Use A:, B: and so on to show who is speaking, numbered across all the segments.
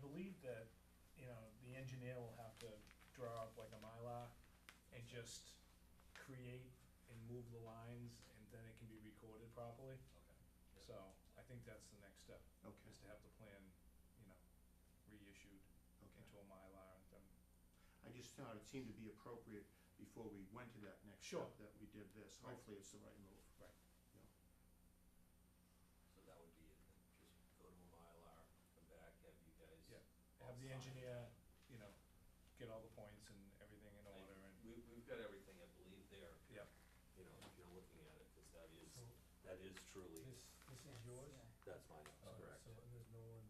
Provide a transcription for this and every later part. A: believe that, you know, the engineer will have to draw up like a Mylar and just create and move the lines, and then it can be recorded properly.
B: Okay.
A: So I think that's the next step,
C: Okay,
A: is to have the plan, you know, reissued
C: okay.
A: into a Mylar and then,
C: I just thought it seemed to be appropriate before we went to that next
A: Sure.
C: step, that we did this.
A: Right.
C: Hopefully, it's the right move.
A: right.
B: So that would be, it then. just go to a Mylar, come back, have you guys.
A: Yeah. Have the engineer, you know, get all the points and everything in
B: I-
A: order and,
B: We, we've got everything, I believe, there,
A: yeah.
B: you know, if you're looking at it, because that is,
D: So
B: that is truly,
D: this, this is yours?
B: that's my house,
D: Uh,
B: correct?
D: So there's no one,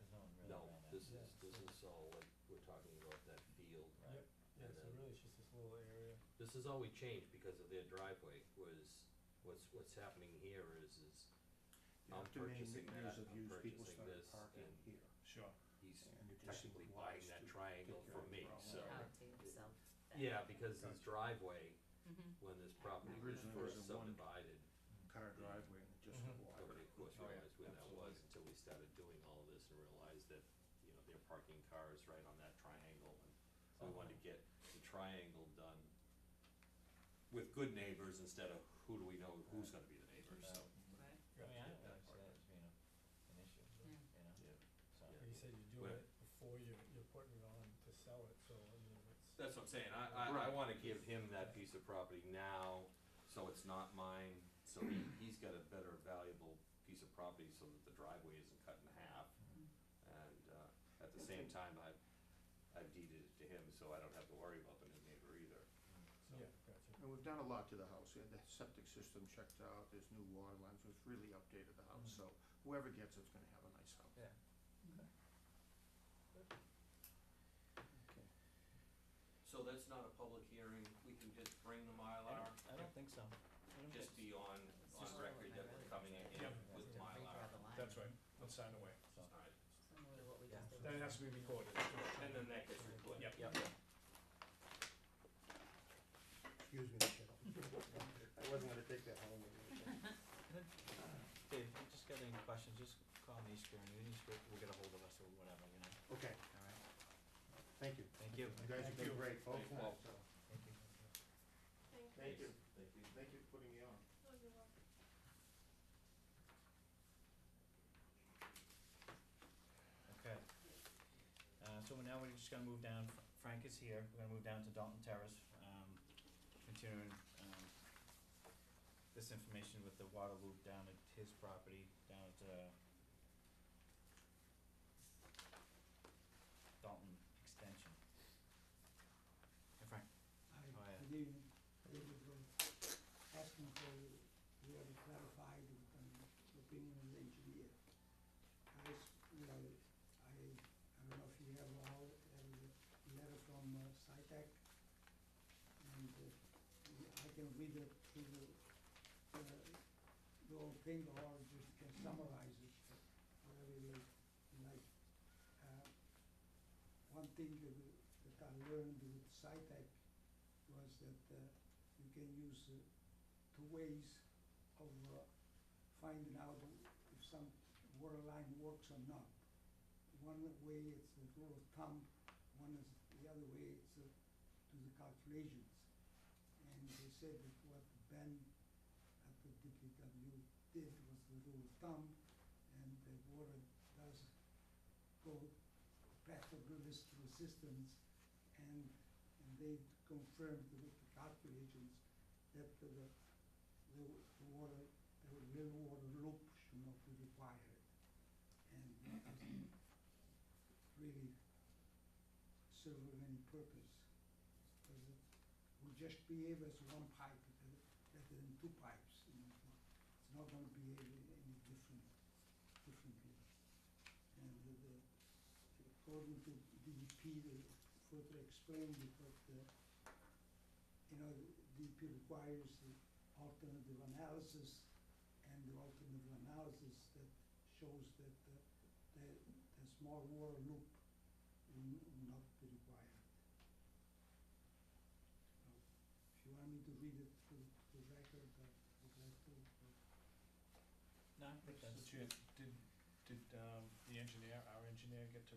E: There's no one really
B: No,
E: around
B: this
D: Yeah,
B: is, this
D: so-
B: is all, like, we're talking about that field.
E: Right.
D: yep, yeah,
B: And
D: so
B: then-
D: really it's just this little area.
B: This is all we changed because of their driveway was, what's, what's happening here is, is
C: You
B: I'm
C: have to name
B: purchasing
C: the areas
B: that,
C: of
B: I'm
C: use, people
B: purchasing
C: started
B: this,
C: parking
B: and-
C: here.
A: Sure.
B: he's
C: And it just
B: technically
C: seemed
B: buying
C: wise to
B: that triangle
C: take care
B: from
C: of the
B: me,
C: problem.
B: so.
F: Out to yourself.
B: Yeah, because this
C: Gotcha.
B: driveway,
F: Mhm.
B: when this property was
C: Originally, it was
B: first
C: a one-
B: subdivided,
C: Car driveway and it just
A: Mhm.
B: nobody
C: wider.
B: of course
A: Oh, yeah,
B: realized where that
A: absolutely.
B: was until we started doing all of this and realized that, you know, they're parking cars right on that triangle. and So we wanted to get the triangle done with good neighbors instead of who do we know, who's gonna be the neighbor,
F: Right,
B: so.
E: I mean,
B: Yeah,
E: I don't
B: that
E: really see
B: part.
E: that as being a- an
F: Yeah.
E: issue, you know,
B: Yeah.
E: so.
B: Yeah.
D: Like you said, you're doing
B: Where-
D: it before you, you're putting it on to sell it, so I mean, it's.
B: That's what I'm saying, I, I, I wanna give him that piece of property now, so it's not mine, so he, he's got a better valuable piece of property so that the driveway isn't cut in half. And, uh, at the same time, I, I deeded it to him, so I don't have to worry about the new neighbor either, so.
D: Yeah, gotcha.
C: And we've done a lot to the house. We had the septic system checked out, there's new water lines, we've really updated the house. So whoever gets it's gonna have a nice house.
E: Yeah.
C: Okay.
B: So that's not a public hearing, we can just bring the
E: I
B: Mylar,
E: don't, I don't think so. I don't
B: just be
E: think
B: on,
F: just
B: on
F: sort of
B: record
F: like
B: that
F: my
B: we're
F: brother.
B: coming in
A: Yeah.
B: with
F: To redraw the
B: Mylar.
F: line.
A: That's right, let's sign away.
E: so.
B: All right.
F: Similar to what we just did.
A: Then it has to be recorded.
B: And then that gets recorded.
A: Yep.
E: Yep.
G: Excuse me, Michelle. I wasn't gonna take that home with me.
E: Dave, if you just got any questions, just call me, screw me, you screw, will get a hold of us or whatever, you know,
G: Okay,
E: all right?
G: thank you.
E: Thank you.
G: You guys have been great, both
B: Thank you.
G: times, so.
E: Thank you.
C: Thank you.
B: Thank you.
C: Thank you for putting me on.
E: Okay. Uh, so now we're just gonna move down, Frank is here, we're gonna move down to Dalton Terrace, um, continuing, um, this information with the water loop down at his property, down at, uh, Dalton Extension. Hey Frank,
H: Hi,
E: Oh, yeah.
H: good evening. David Rose. Asking for, we already clarified from the opinion of the engineer. I, s- you know, I, I don't know if you have all, have a letter from uh, SciTech. And uh, we- I can read it through the, uh, the whole thing or just can summarize it, whatever you like. Uh, One thing that we- that I learned with SciTech was that uh, you can use uh, two ways of uh, finding out if some water line works or not. One way it's a rule of thumb, one is, the other way it's uh, to the calculations. And they said that what Ben at the DPW did was the rule of thumb, and the water does go past the risk resistance, and and they confirmed with the calculations that the, the, the water, the real water loop should not be required. And it doesn't really serve any purpose, because it will just behave as one pipe uh, rather than two pipes. you know, It's not gonna behave any different, differently. And the- the, according to DEP, they further explained it, but, uh, you know, DEP requires the alternative analysis, and the alternative analysis that shows that uh, the, the small water loop will n- will not be required. So, If you want me to read it to the record, I would like to, but
E: no, I think that's.
A: Mr. Chair, did, did um, the engineer, our engineer, get to